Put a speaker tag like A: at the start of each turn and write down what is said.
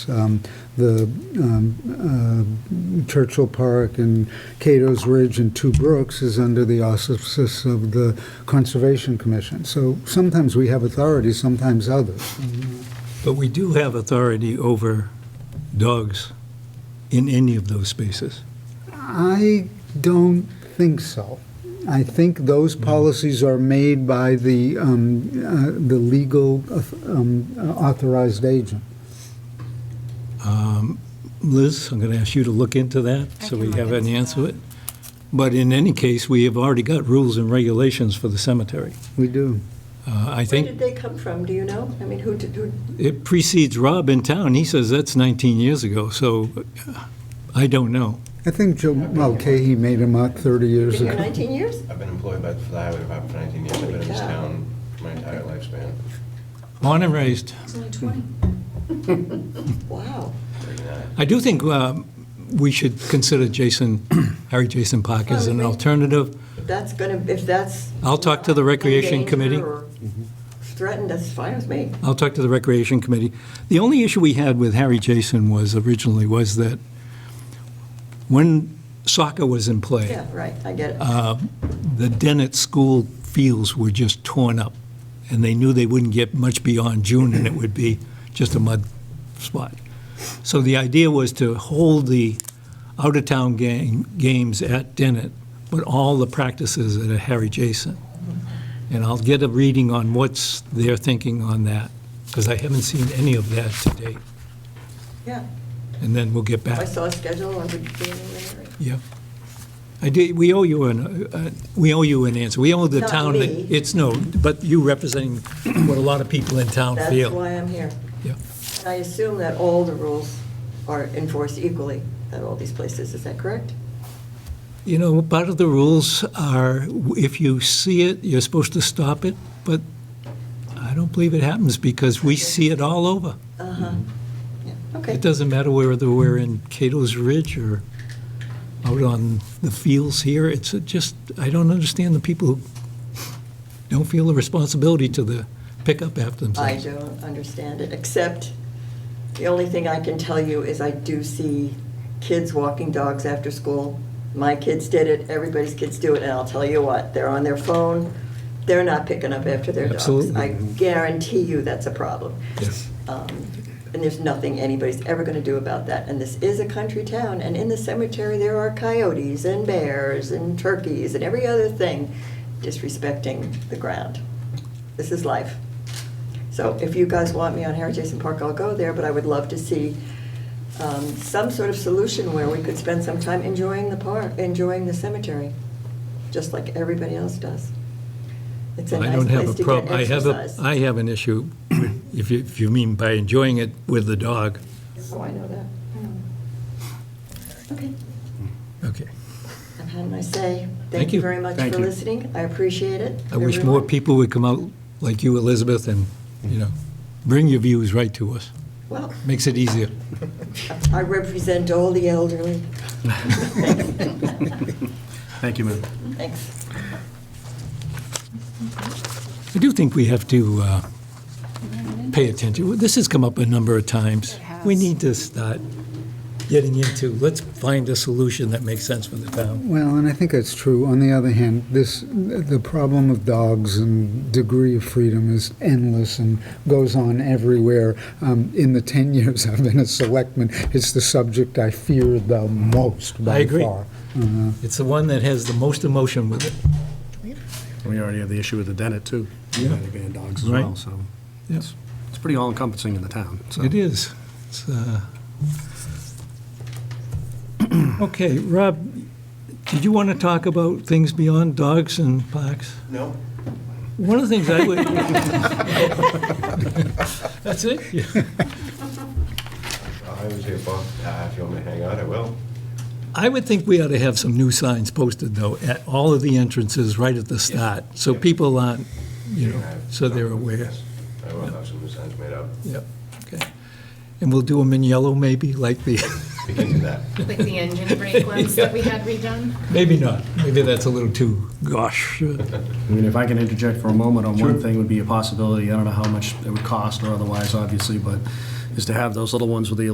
A: um, the um, uh, Churchill Park and Cato's Ridge and Two Brooks is under the auspices of the Conservation Commission. So sometimes we have authority, sometimes others.
B: But we do have authority over dogs in any of those spaces.
A: I don't think so. I think those policies are made by the, um, uh, the legal um, authorized agent.
B: Liz, I'm going to ask you to look into that,
C: I
B: so
C: can
B: we
C: look
B: have
C: into
B: an answer to
C: that.
B: it. But in any case, we have already got rules and regulations for the cemetery.
A: We do.
B: Uh, I
D: Where
B: think
D: did they come from, do you know? I mean, who did, who,
B: it precedes Rob in town. He says that's 19 years ago, so uh, I don't know.
A: I think Joe Mulcahy made them out 30
D: been
A: years
D: here
A: ago.
D: 19 years?
E: I've been employed by the highway department for 19 years. I've been in
D: Holy
E: this
D: cow.
E: town for my entire lifespan,
B: Born and raised.
C: It's only 20.
D: Wow.
E: 39.
B: I do think um, we should consider Jason, Harry Jason Park
C: Oh,
B: as an
D: Well, we-
B: alternative.
D: That's gonna, if that's.
B: I'll talk to the Recreation
D: in danger
B: Committee.
D: or Threatened, that's fine with me.
B: I'll talk to the Recreation Committee. The only issue we had with Harry Jason was originally was that when soccer was in play,
D: Yeah, right, I get it.
B: uh, the Dennett School fields were just torn up, and they knew they wouldn't get much beyond June, and it would be just a mud spot. So the idea was to hold the out-of-town game, games at Dennett, but all the practices at Harry Jason. And I'll get a reading on what's their thinking on that, because I haven't seen any of that to date.
D: Yeah,
B: And then we'll get
D: if I
B: back.
D: saw a schedule, I would be in there.
B: Yeah. I did, we owe you an, uh, we owe you an answer. We owe the
D: Not
B: town. that-
D: me.
B: It's, no, but you representing what a lot of people in town
D: That's
B: feel.
D: why I'm here.
B: Yeah.
D: And I assume that all the rules are enforced equally at all these places, is that correct?
B: You know, part of the rules are, if you see it, you're supposed to stop it, but I don't believe it happens because we see it all over.
D: Uh-huh. Yeah, Okay.
B: It doesn't matter whether we're in Cato's Ridge or out on the fields here. It's just, I don't understand the people who don't feel the responsibility to the pick up after
D: I
B: themselves.
D: don't understand it, except the only thing I can tell you is I do see kids walking dogs after school. My kids did it, everybody's kids do it, and I'll tell you what, they're on their phone, they're not picking up after their dogs.
B: Absolutely.
D: I guarantee you that's a problem.
B: Yes.
D: Um, And there's nothing anybody's ever going to do about that. And this is a country town, and in the cemetery, there are coyotes and bears and turkeys and every other thing disrespecting the ground. This is life. So if you guys want me on Harry Jason Park, I'll go there, but I would love to see um, some sort of solution where we could spend some time enjoying the park, enjoying the cemetery, just like everybody else does. It's
B: I
D: a nice
B: don't have
D: place
B: a
D: to get
B: problem. I have, a
D: exercise.
B: I have an issue, if you, if you mean by enjoying it with the dog.
D: Oh, I know that. Okay,
B: Okay.
D: I've had my say.
B: Thank
D: Thank
B: you.
D: you very much
B: Thank
D: for
B: you.
D: listening. I appreciate it.
B: I wish more
D: everyone.
B: people would come out like you, Elizabeth, and, you know, bring your views right to us.
D: Well,
B: Makes it easier.
D: I represent all the elderly.
F: Thank you, ma'am.
D: Thanks.
B: I do think we have to uh, pay attention. This has come up a number of times. We need to start getting into, let's find a solution that makes sense for the town.
A: Well, and I think that's true. On the other hand, this the problem of dogs and degree of freedom is endless and goes on everywhere. Um, in the ten years I've been a selectman, it's the subject I fear the most by
B: I agree.
A: far.
B: It's the one that has the most emotion with it.
F: We already have the issue with the Dennett, too. Yeah. They ban dogs as
B: Right.
F: well, so
B: Yes,
F: it's pretty all-encompassing in the town, so.
B: it is. It's, uh, Okay, Rob, did you want to talk about things beyond dogs and parks?
E: No,
B: One of the things I would. That's it? Yeah.
E: I was here, Bob. Uh, If you want me to hang out, I will.
B: I would think we ought to have some new signs posted, though, at all of the entrances right at the start, so people aren't, you know, so they're aware.
E: Yes, I will have some new signs made up.
B: Yep, okay. And we'll do them in yellow, maybe, like the,
E: We can do that.
C: Like the engine brake ones that we had redone.
B: maybe not, maybe that's a little too, gosh. uh,
F: I mean, if I can interject for a moment on one thing would be a possibility, I don't know how much it would cost or otherwise, obviously, but is to have those little ones with the